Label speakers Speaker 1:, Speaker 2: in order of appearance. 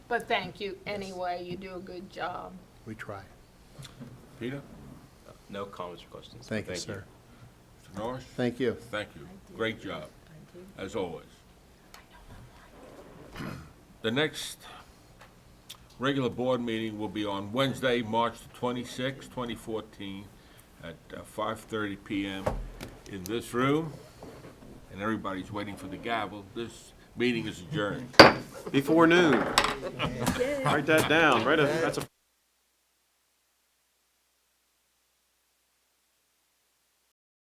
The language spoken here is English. Speaker 1: But thank you anyway, you do a good job.
Speaker 2: We try.
Speaker 3: Peter,
Speaker 4: No comments or questions.
Speaker 2: Thank you, sir.
Speaker 3: Mr. Norris,
Speaker 2: Thank you.
Speaker 3: thank you. Great job, as always. The next regular board meeting will be on Wednesday, March twenty-sixth, twenty fourteen, at uh, five-thirty PM in this room. And everybody's waiting for the gavel. This meeting is adjourned.
Speaker 5: Before noon. Write that down, right, that's a